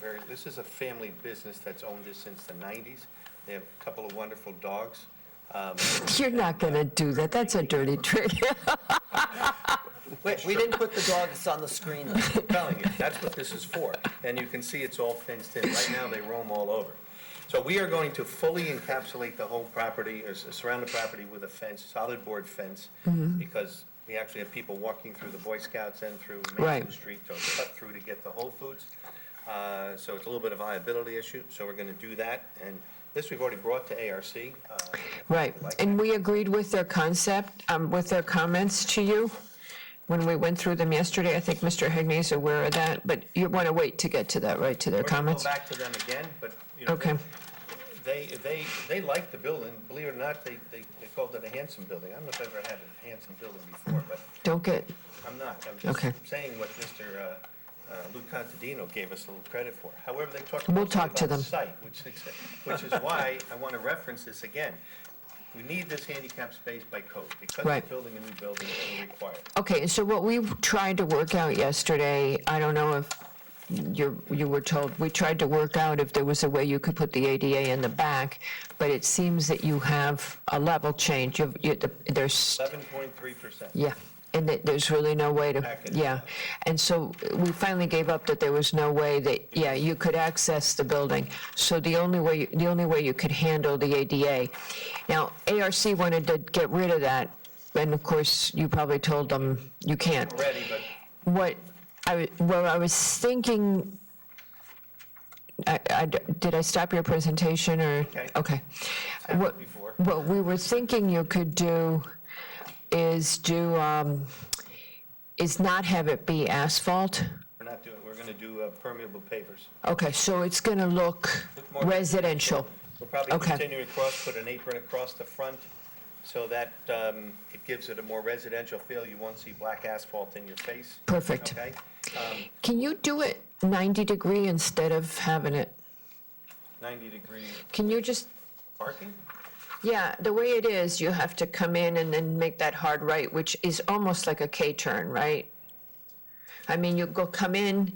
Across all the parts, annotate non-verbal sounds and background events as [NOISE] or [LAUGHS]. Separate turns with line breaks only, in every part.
very, this is a family business that's owned this since the nineties. They have a couple of wonderful dogs. Um,
You're not going to do that. That's a dirty trick. [LAUGHS]
Wait, we didn't put the dogs on the screen. though.
[LAUGHS] I'm telling you, that's what this is for. And you can see it's all fenced in. Right now, they roam all over. So we are going to fully encapsulate the whole property, or s- surround the property with a fence, solid board fence,
Mm-hmm.
because we actually have people walking through the Boy Scouts and through Main
Right.
Street, so it's cut through to get to Whole Foods. Uh, So it's a little bit of a viability issue, so we're going to do that. And this we've already brought to ARC. uh,
Right. And we agreed with their concept, um, with their comments to you when we went through them yesterday. I think Mr. Hegney is aware of that, but you want to wait to get to that, right, to their
We're going to go
comments?
back to them again, but, you know,
Okay.
They, they, they liked the building, believe it or not, they, they they called it a handsome building. I don't know if I've ever had a handsome building before, but
Don't get,
I'm not. I'm
Okay.
just saying what Mr. uh, uh, Lou Contadino gave us a little credit for. However, they talked
We'll
mostly
talk to
about
them.
site, which is, which is why I want to reference this again. We need this handicap space by code, because we're
Right.
building a new building, it will require it.
okay, so what we tried to work out yesterday, I don't know if you, you were told, we tried to work out if there was a way you could put the ADA in the back, but it seems that you have a level change. You've, you, there's
11.3%.
Yeah, and that there's really no way to,
Package.
yeah. And so we finally gave up that there was no way that, yeah, you could access the building. So the only way, the only way you could handle the ADA. Now, ARC wanted to get rid of that, and of course, you probably told them you can't.
Already, but
What I, wa- what I was thinking, I, I d- did I stop your presentation or?
Okay.
Okay.
happened
What-
before.
What we were thinking you could do is do, um, is not have it be asphalt.
we're not doing, we're going to do uh, permeable pavers.
Okay, so it's going to look
Look more-
residential.
We'll probably
Okay.
continue across, put an apron across the front, so that um, it gives it a more residential feel. You won't see black asphalt in your face.
Perfect.
Okay?
Can you do it 90 degree instead of having it?
90-degree
Can you just,
parking?
yeah, the way it is, you have to come in and then make that hard right, which is almost like a K-turn, right? I mean, you go come in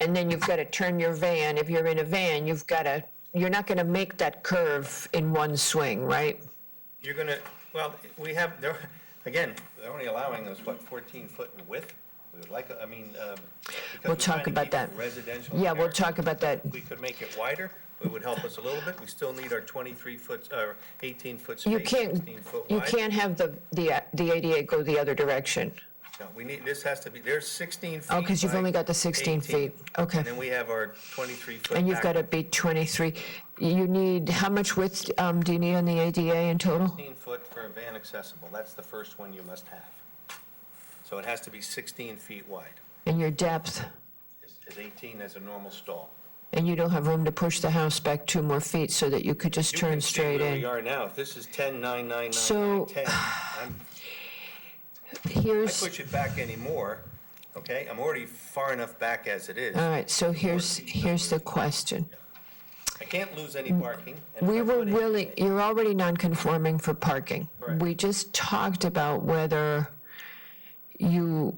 and then you've got to turn your van. If you're in a van, you've got to, you're not going to make that curve in one swing, right?
You're gonna, well, we have, they're, again, they're only allowing us, what, 14 foot in width? We would like, I mean, um, because
We'll
we're trying
talk
to
about
keep it
that.
Residential.
Yeah, we'll
character.
talk about that.
We could make it wider, it would help us a little bit. We still need our 23 foot, or 18 foot
You
space,
can't,
16 foot
you
wide.
can't have the, the, uh, the ADA go the other direction.
No, we need, this has to be, there's 16 feet.
Oh, 'cause you've
by
only got the 16
18.
feet. Okay.
And then we have our 23-foot.
And you've got to
back-
be 23. You need, how much width um, do you need on the ADA in total?
16-foot for a van accessible, that's the first one you must have. So it has to be 16 feet wide,
And your depth?
is is 18 as a normal stall.
And you don't have room to push the house back two more feet so that you could just
You
turn
can see
straight
where we
in?
are now, if this is 10, 9, 9, 9,
So-
10, I'm- I
Here's,
push it back anymore, okay? I'm already far enough back as it is.
all right, so here's, here's the question.
I can't lose any parking. and if
We
I
were
put it-
willing, you're already non-conforming for parking.
Correct.
We just talked about whether you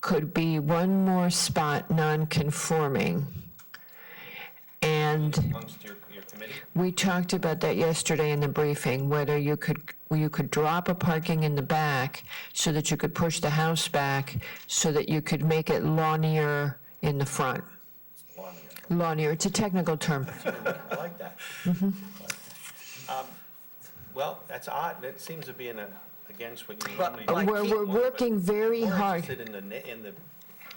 could be one more spot non-conforming. And
Amongst your, your committee,
we talked about that yesterday in the briefing, whether you could, you could drop a parking in the back so that you could push the house back, so that you could make it lawnier in the front.
Long enough.
Lawnier, it's a technical term.
I like that. Um, Well, that's odd, that seems to be in a, against what you
But like-
normally. do.
We're, we're
But
working very
we're
hard.
interested in the, ne- in the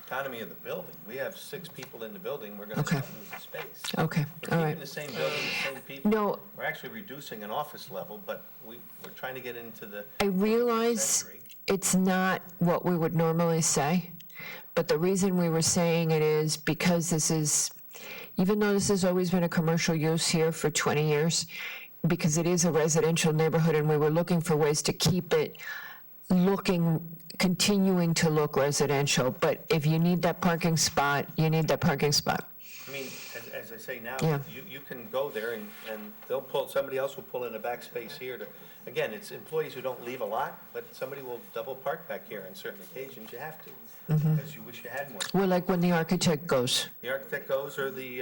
economy of the building. We have six people in the building, we're gonna
Okay.
start losing space.
Okay,
We're
all right.
keeping the same building, the same people.
No.
We're actually reducing an office level, but we, we're trying to get into the,
I realize
Century.
it's not what we would normally say, but the reason we were saying it is because this is, even though this has always been a commercial use here for 20 years, because it is a residential neighborhood and we were looking for ways to keep it looking, continuing to look residential. But if you need that parking spot, you need that parking spot.
I mean, as, as I say now,
Yeah.
you, you can go there and, and they'll pull, somebody else will pull in a back space here to, again, it's employees who don't leave a lot, but somebody will double park back here on certain occasions, you have to, because you wish you had more.
We're like when the architect goes.
The architect goes or the